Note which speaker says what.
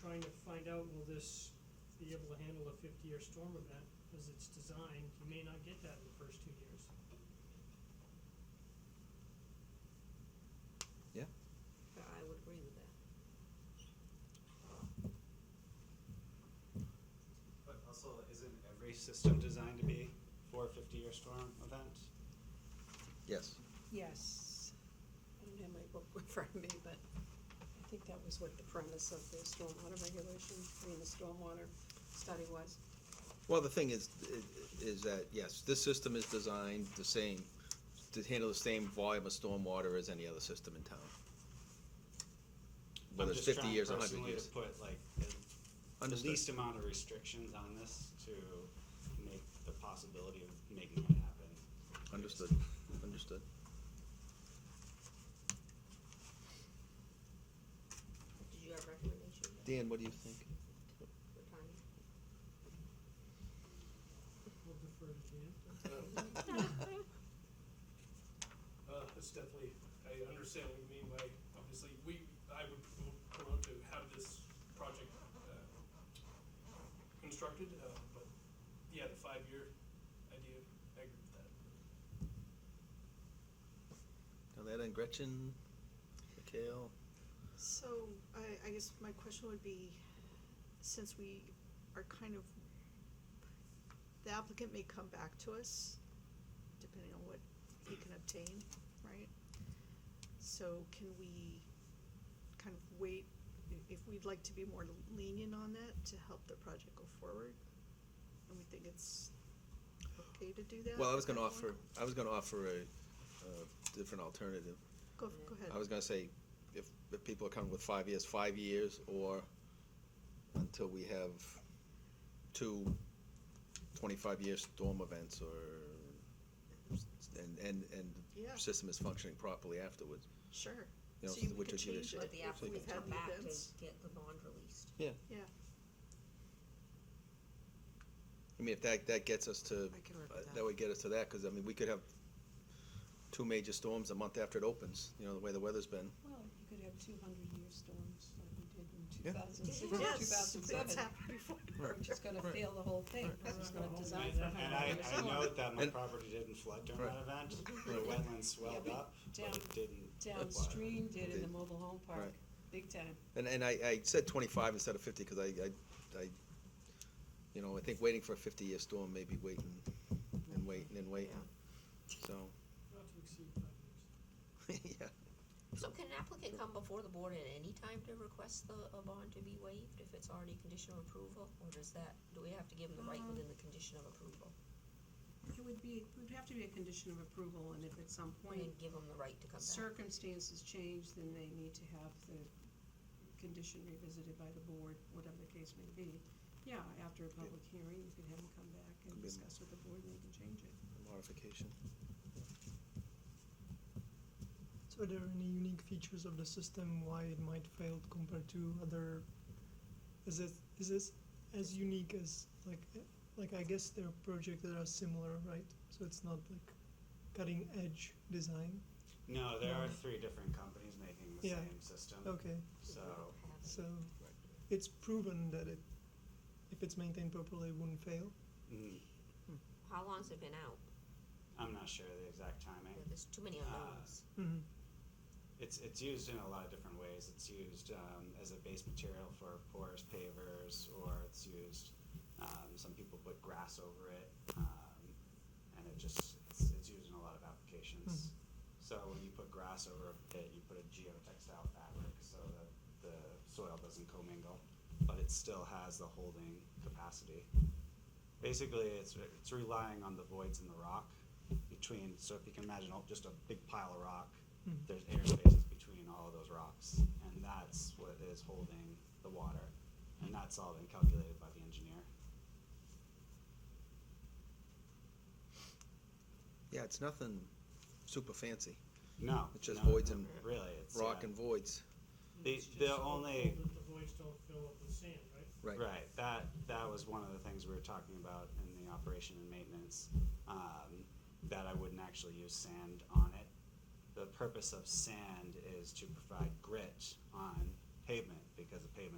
Speaker 1: trying to find out, will this be able to handle a fifty-year storm event? As it's designed, you may not get that in the first two years.
Speaker 2: Yeah.
Speaker 3: I would agree with that.
Speaker 4: But also, isn't every system designed to be for a fifty-year storm event?
Speaker 2: Yes.
Speaker 5: Yes. I don't have my book in front of me, but I think that was what the premise of the stormwater regulation, I mean, the stormwater study was.
Speaker 2: Well, the thing is, i- is that, yes, this system is designed the same, to handle the same volume of stormwater as any other system in town. Whether it's fifty years or
Speaker 4: I'm just
Speaker 2: hundred
Speaker 4: trying personally
Speaker 2: years.
Speaker 4: to put like the- the
Speaker 2: Understood.
Speaker 4: least amount of restrictions on this to make the possibility of making it happen.
Speaker 2: Understood, understood.
Speaker 3: Did you have recommendation?
Speaker 2: Dan, what do you think?
Speaker 3: For Tanya?
Speaker 1: We'll defer to Jan.
Speaker 6: Uh, it's definitely, I understand what you mean by, obviously, we, I would want to have this project, uh, constructed, uh, but, yeah, the five-year idea, I agree with that.
Speaker 2: Aleta and Gretchen, Mikhail?
Speaker 7: So I, I guess my question would be, since we are kind of, the applicant may come back to us, depending on what he can obtain, right? So can we kind of wait, i- if we'd like to be more lenient on that to help the project go forward? And we think it's okay to do that?
Speaker 2: Well, I was
Speaker 7: at that
Speaker 2: gonna offer,
Speaker 7: point?
Speaker 2: I was gonna offer a, uh different alternative.
Speaker 7: Go, go ahead.
Speaker 2: I was gonna say, if, if people are coming with five years, five years, or until we have two twenty-five-year storm events, or, and, and, and
Speaker 7: Yeah.
Speaker 2: the system is functioning properly afterwards.
Speaker 7: Sure.
Speaker 2: You know,
Speaker 7: So you
Speaker 2: which
Speaker 7: could
Speaker 2: is your
Speaker 7: change
Speaker 2: decision.
Speaker 7: it.
Speaker 3: Let the
Speaker 2: We've
Speaker 3: applicant
Speaker 7: had
Speaker 3: come
Speaker 7: the
Speaker 3: back to
Speaker 7: events.
Speaker 3: get the bond released.
Speaker 2: Yeah,
Speaker 7: Yeah,
Speaker 2: I mean, if that, that gets us to,
Speaker 7: I can work
Speaker 2: uh,
Speaker 7: with
Speaker 2: that
Speaker 7: that.
Speaker 2: would get us to that, because, I mean, we could have two major storms a month after it opens, you know, the way the weather's been.
Speaker 5: Well, you could have two hundred-year storms like we did in two
Speaker 2: Yeah.
Speaker 5: thousand six, two
Speaker 7: yes,
Speaker 5: thousand
Speaker 7: that's
Speaker 5: seven.
Speaker 7: happened before.
Speaker 5: Which is gonna fail the whole thing, because it's not designed for
Speaker 1: And
Speaker 5: hundred
Speaker 4: And I,
Speaker 5: years.
Speaker 4: I note that my
Speaker 2: And-
Speaker 4: property didn't flood during
Speaker 2: Right.
Speaker 4: that event, the wetlands swelled
Speaker 5: but
Speaker 4: up, but
Speaker 5: down-
Speaker 4: it didn't. flood.
Speaker 5: Downstream did in the
Speaker 2: Did.
Speaker 5: mobile home park,
Speaker 2: Right.
Speaker 5: big time.
Speaker 2: And, and I, I said twenty-five instead of fifty, because I, I, I, you know, I think waiting for a fifty-year storm may be waiting, and waiting, and waiting, so,
Speaker 1: Not to exceed five years.
Speaker 2: yeah.
Speaker 3: So can an applicant come before the board at any time to request the, a bond to be waived if it's already conditional approval? Or does that, do we have to give them the right within the condition of approval?
Speaker 5: It would be, it would have to be a condition of approval, and if at some
Speaker 3: And then
Speaker 5: point
Speaker 3: give them the right to come back?
Speaker 5: circumstances change, then they need to have the condition revisited by the board, whatever the case may be. Yeah, after a public hearing, you could have them come back
Speaker 2: Could
Speaker 5: and
Speaker 2: be-
Speaker 5: discuss with the board, and they can change it.
Speaker 2: Modification.
Speaker 8: So are there any unique features of the system why it might fail compared to other? Is it is this as unique as like eh, like I guess there are projects that are similar, right? So it's not like cutting edge design.
Speaker 4: No, there are three different companies making the
Speaker 8: Yeah.
Speaker 4: same system.
Speaker 8: Okay,
Speaker 4: So,
Speaker 8: so it's proven that it if it's maintained properly it wouldn't fail.
Speaker 4: mm,
Speaker 3: How long's it been out?
Speaker 4: I'm not sure the exact timing.
Speaker 3: There's too many unknowns.
Speaker 8: hmm
Speaker 4: It's, it's used in a lot of different ways. It's used um, as a base material for porous pavers, or it's used, um, some people put grass over it, um, and it just, it's, it's used in a lot of applications.
Speaker 8: Mhm.
Speaker 4: So when you put grass over a pit, you put a geotextile fabric so that the soil doesn't commingle, but it still has the holding capacity. Basically, it's, it's relying on the voids in the rock between, so if you can imagine all- just a big pile of rock,
Speaker 8: Mhm.
Speaker 4: there's air spaces between all of those rocks, and that's what is holding the water. And that's all been calculated by the engineer.
Speaker 2: Yeah, it's nothing super fancy,
Speaker 4: No.
Speaker 2: It's just
Speaker 4: no,
Speaker 2: voids and
Speaker 4: Really, it's.
Speaker 2: rock
Speaker 4: yeah.
Speaker 2: and voids,
Speaker 4: The-
Speaker 1: It's just
Speaker 4: the
Speaker 1: so
Speaker 4: only-
Speaker 1: that The voids don't fill up with sand, right?
Speaker 2: right?
Speaker 4: Right, that, that was one of the things we were talking about in the operation and maintenance, um, that I wouldn't actually use sand on it. The purpose of sand is to provide grit on pavement, because the pavement